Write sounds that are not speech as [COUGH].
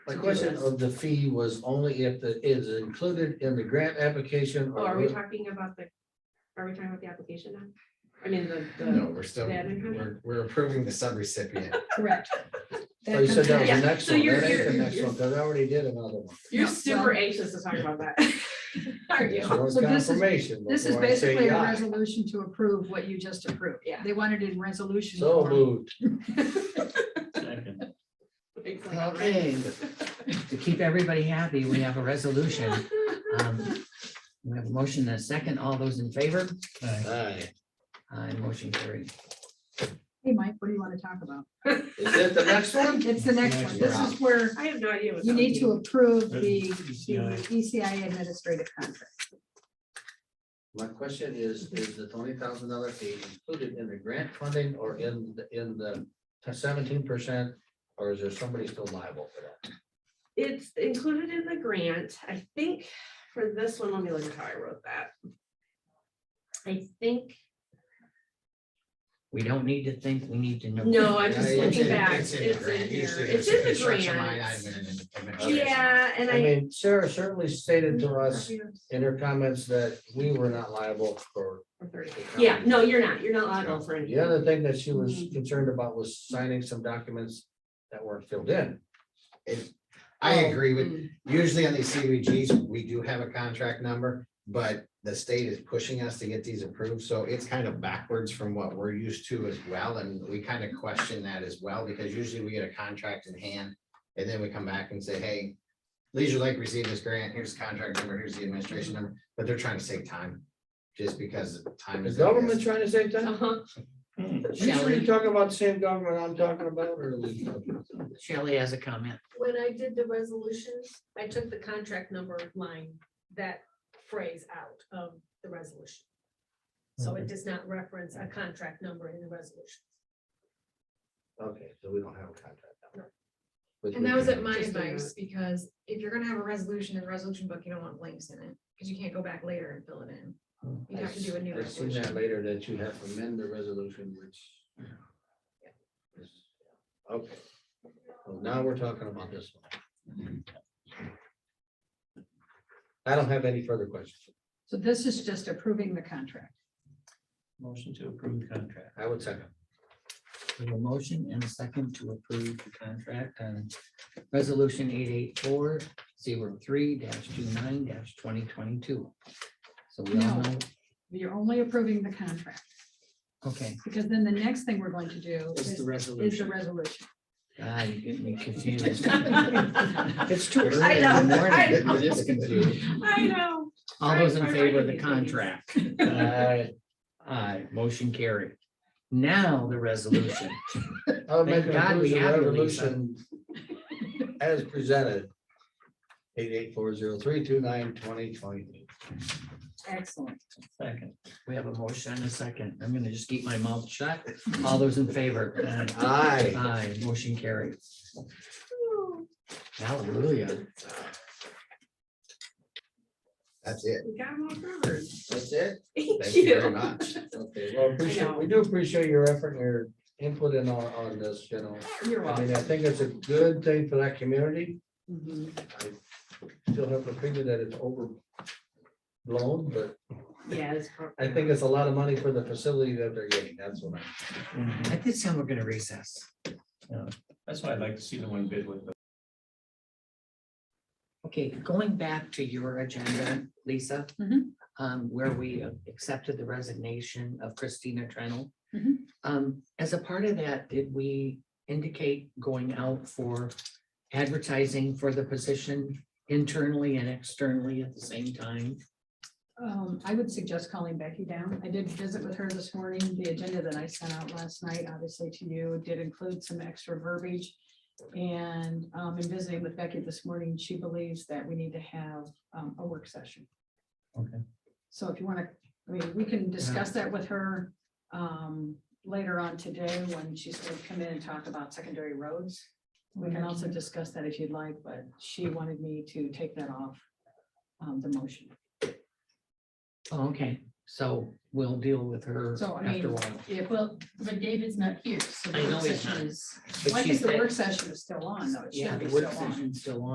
My question of the fee was only if the, is it included in the grant application Oh, are we or talking about the, are we talking about the application now? I mean, the, No, the, we're still, the other kind? we're, we're approving the subrecipient. Correct. Oh, you said that was Yeah, the next so one, you're- that ain't the you're- next one, because I already did another one. you're No, super well- anxious to talk about [LAUGHS] that. Aren't you? So I want So this is- confirmation This is before I say basically a aye. resolution to approve what you just approved. Yeah. They wanted it in resolution. So form. moved. Second. Exactly. Okay, to keep everybody happy, we have a resolution. Um, We have a motion and a second. All those in favor? Aye. Aye, motion carried. Hey, Mike, what do you want to talk about? Is that the next one? It's the next one. This is where I have no idea what. you that need to means. approve the the ECI. ECI administrative contract. My question is, is the twenty thousand dollar fee included in the grant funding or in, the in the seventeen percent? Or is there somebody still liable for that? It's included in the grant. I think for this one, let me look at how I wrote that. I think, We don't need to think, we need to know. no, I'm just Yeah, it's looking in- back. It's It's in the in grant. here. Usually It's there's in a the construction line item grant. and an administration. Yeah, and I I. mean, Sarah certainly stated to us in her comments that we were not liable for. Or thirty. the Yeah, company. no, you're not. You're not liable for anything. The other thing that she was concerned about was signing some documents that weren't filled in. I agree with, Mm. usually on these CVGs, we do have a contract number, but the state is pushing us to get these approved, so it's kind of backwards from what we're used to as well, and we kind of question that as well, because usually we get a contract in hand, and then we come back and say, hey, Leisure Lake received this grant, here's the contract number, here's the administration number, but they're trying to save time, just because time Is is. government trying to save time? Hmm. Uh-huh. You sure Shelley. you're talking about the same government I'm talking about or? Shelley has a comment. when I did the resolutions, I took the contract number line, that phrase out of the resolution. So it does not reference a contract number in the resolution. Okay, so we don't have a contract. number. Which And we that was can- at my Just do advice, because if you're gonna have a resolution in the resolution book, you don't want blanks in it, because you can't go back later and fill it in. You I have to do a new I seen that resolution. later that you have to amend the resolution, which. is- Okay. Well, now we're talking about this one. I don't have any further questions. So this is just approving the contract. Motion to approve contract. I would second. We have a motion and a second to approve the contract on resolution eight eight four zero three 29 twenty twenty-two. So we all No. know, You're only approving the contract, okay, because then the next thing we're going to do is, It's the is the resolution. resolution. God, you get me [LAUGHS] confused. It's too early in the morning. I It it is confusing. I know. All those in Sorry, favor of the sorry, I didn't mean to do contract? Aye. Aye, Uh, motion carried. Now the resolution. I'll make Thank a Oh, God we motion have you, resolution as presented. Eight eight four zero three two nine twenty twenty. Excellent. Second. We have a motion and a second. I'm gonna just keep my mouth shut. All those in favor? Aye. Aye. Aye, motion carried. Hallelujah. That's it. We got them all covered. That's it? Thank Thank you very you. much. Okay, well, appreciate, we do appreciate your effort, and your input in on, on this, you know. You're I welcome. mean, I think it's a good thing for that community. Mhm. I still have the opinion that it's overblown, but Yeah, it's pro- I think it's a lot of money for the facility that they're getting, that's what I. At this time, we're gonna recess. That's why I'd like to see the one bid with the Okay, going back to your agenda, Lisa. Mhm. um, where we accepted the resignation of Christina Trenel. Mhm. Um, as a part of that, did we indicate going out for advertising for the position internally and externally at the same time? Um, I would suggest calling Becky down. I did visit with her this morning. The agenda that I sent out last night, obviously to you, did include some extra verbiage. And, um, in visiting with Becky this morning, she believes that we need to have, um, a work session. Okay. So if you want to, I mean, we can discuss that with her, um, later on today when she's going to come in and talk about secondary roads. We can also discuss that if you'd like, but she wanted me to take that off, um, the motion. Oh, Okay, So we'll deal with her So, I mean, after a while. Yeah, Well, but David's not here, so. I know the he's session not. is- But Well, I think she's the at- work session is still on, though. It Yeah, should be the still work on. session's still on.